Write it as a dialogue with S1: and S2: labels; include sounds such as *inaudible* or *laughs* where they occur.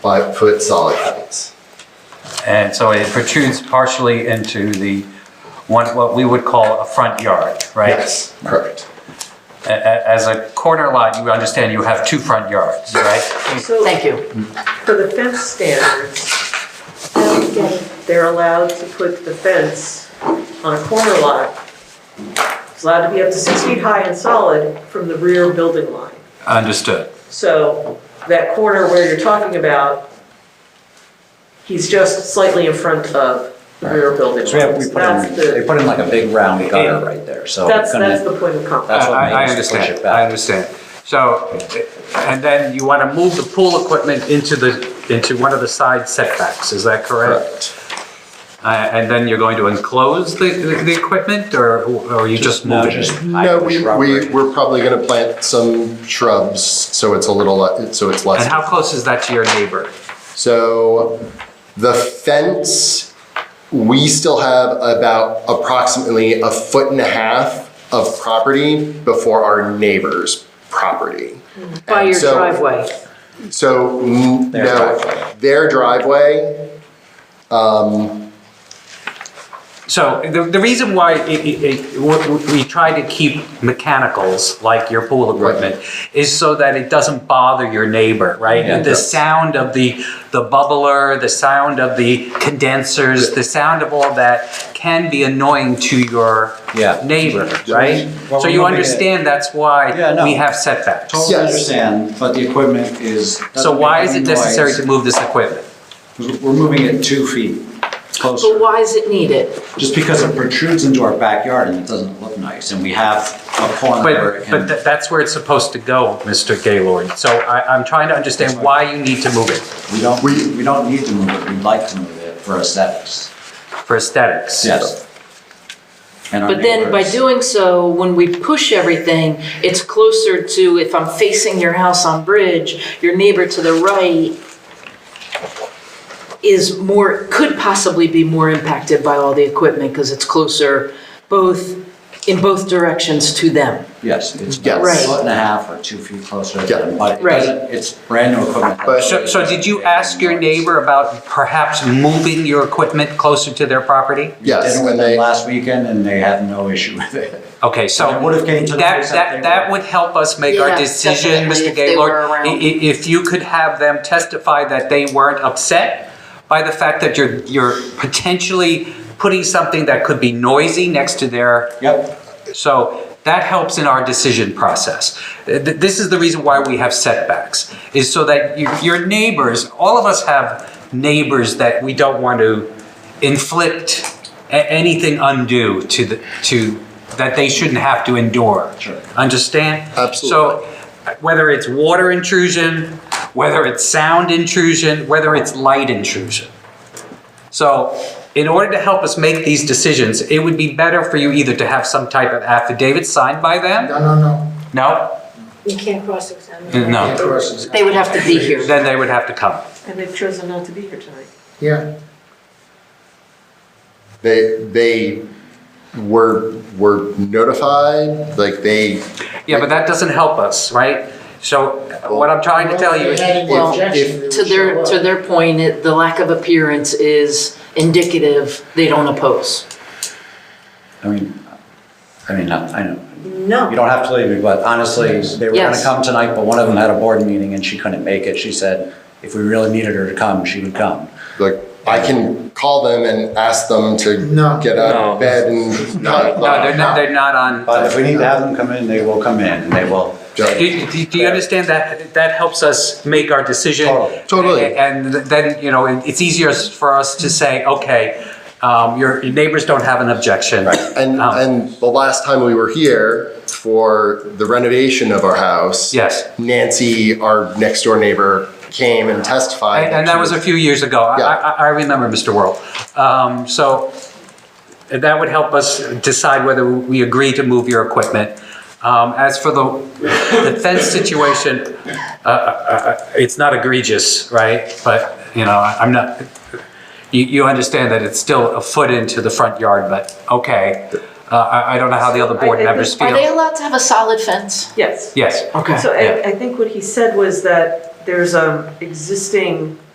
S1: five foot solid cuttings.
S2: And so it protrudes partially into the one, what we would call a front yard, right?
S1: Yes, correct.
S2: A- a- As a corner lot, you understand you have two front yards, right?
S3: So
S4: Thank you.
S3: for the fence standards, they're allowed to put the fence on a corner lot. It's allowed to be up to six feet high and solid from the rear building line.
S2: Understood.
S3: So that corner where you're talking about, he's just slightly in front of the rear building
S5: So we have,
S3: line.
S5: we put
S3: That's
S5: in, they
S3: the,
S5: put in like a big round gutter right there, so.
S3: that's,
S5: it's gonna-
S3: that's the point of
S5: That's
S3: conflict.
S5: what
S2: I- I
S5: made us push
S2: understand,
S5: it
S2: I
S5: back.
S2: understand. So, and then you want to move the pool equipment into the, into one of the side setbacks, is that correct? Uh, And then you're going to enclose the, the the equipment, or or you just
S5: No,
S2: move it?
S5: just hide
S1: No,
S5: the
S1: we, we,
S5: shrubbery.
S1: we're probably gonna plant some shrubs, so it's a little, le- so it's less.
S2: And how close is that to your neighbor?
S1: So the fence, we still have about approximately a foot and a half of property before our neighbor's property.
S4: Mm. By your
S1: So-
S4: driveway.
S1: So, n-
S5: Their
S1: no,
S5: driveway.
S1: their driveway,
S2: So the, the reason why it, it, it, we- we try to keep mechanicals like your pool equipment is so that it doesn't bother your neighbor, right?
S5: Yeah.
S2: The sound of the the bubbler, the sound of the condensers, the sound of all that can be annoying to your
S5: Yeah.
S2: neighbor,
S5: Yeah.
S2: right?
S6: Well,
S2: so
S6: we're
S2: you
S6: moving it.
S2: understand that's why
S6: Yeah, no.
S2: we have setbacks.
S6: Totally
S1: Yes.
S6: understand, but the equipment is.
S2: So why is it necessary to move this equipment?
S6: to? We're moving it two feet
S4: But
S6: closer,
S4: why is it needed?
S6: just because it protrudes into our backyard and it doesn't look nice, and we have a corner where
S2: But,
S6: it
S2: but
S6: can.
S2: tha- that's where it's supposed to go, Mr. Gaylord. So I, I'm trying to understand why you need to move it.
S6: We don't,
S1: we-
S6: we don't need to move it, we'd like to move it for aesthetics,
S2: for aesthetics.
S6: yes. And our
S4: But then by
S6: neighbors.
S4: doing so, when we push everything, it's closer to, if I'm facing your house on Bridge, your neighbor to the right is more, could possibly be more impacted by all the equipment because it's closer both, in both directions to them.
S6: Yes,
S1: Yes.
S6: it's about a
S4: Right.
S6: foot and a half or two feet closer to
S1: Yeah.
S6: them, but it
S4: Right.
S6: doesn't, it's brand new equipment.
S1: But-
S2: So, so did you ask your neighbor about perhaps moving your equipment closer to their property?
S1: yes,
S6: Did it
S1: and
S6: with
S1: they,
S6: them last weekend and they had no issue with it. *laughs*
S2: Okay, so
S6: It would have came to the
S2: that,
S6: place that
S2: that,
S6: they
S2: that
S6: were.
S2: would help us make our
S4: Yeah,
S2: decision,
S4: definitely,
S2: Mr.
S4: if they
S2: Gaylord.
S4: were around.
S2: I- i- If you could have them testify that they weren't upset by the fact that you're, you're potentially putting something that could be noisy next to their
S6: Yep.
S2: So that helps in our decision process. Th- th- This is the reason why we have setbacks, is so that you- your neighbors, all of us have neighbors that we don't want to inflict a- anything undue to, the to, that they shouldn't have to endure.
S6: Sure.
S2: Understand?
S1: Absolutely.
S2: So whether it's water intrusion, whether it's sound intrusion, whether it's light intrusion. So in order to help us make these decisions, it would be better for you either to have some type of affidavit signed by them?
S7: No, no, no.
S2: No?
S8: You can't cross-examine.
S2: No.
S4: They would have to be here.
S2: Then they would have to come.
S3: And they've chosen not to be here tonight.
S7: Yeah,
S1: they, they were, were notified, like they.
S2: Yeah, but that doesn't help us, right? So what I'm trying to tell you
S7: If
S2: is,
S7: they had any
S4: Well,
S7: objection, they
S4: To
S7: would
S4: their,
S7: show
S4: to
S7: up.
S4: their point, it- the lack of appearance is indicative, they don't oppose.
S6: I mean, I mean, I I know,
S3: No.
S6: You don't have to leave me, but honestly, they were gonna
S4: Yes.
S6: come tonight, but one of them had a board meeting and she couldn't make it. She said if we really needed her to come, she would come.
S1: Like, I can call them and ask them to
S7: No.
S1: get out of bed and not.
S2: no, they're not, they're not on.
S6: But if we need to have them come in, they will come in and they will.
S2: Do, do- do you understand that, that helps us make our decision?
S6: Totally.
S1: Totally.
S2: A- And then, you know, it- it's easier for us to say, okay, um, your your neighbors don't have an objection.
S1: And,
S2: Um,
S1: and the last time we were here for the renovation of our house.
S2: Yes.
S1: Nancy, our next door neighbor, came and testified.
S2: And and that
S1: she
S2: was a few years ago. I-
S1: Yeah.
S2: I, I remember, Mr. World. Um, So that would help us decide whether we agree to move your equipment. Um, As for the the fence situation, uh, uh, uh, it's not egregious, right? But, you know, I- I'm not, you, you understand that it's still a foot into the front yard, but okay. Uh, I, I don't know how the other board
S3: I- I
S2: members
S4: Are they
S2: feel.
S4: allowed to have a solid fence?
S3: Yes.
S2: Yes.
S4: Okay.
S3: So
S2: Yeah.
S3: I, I think what he said was that there's um, existing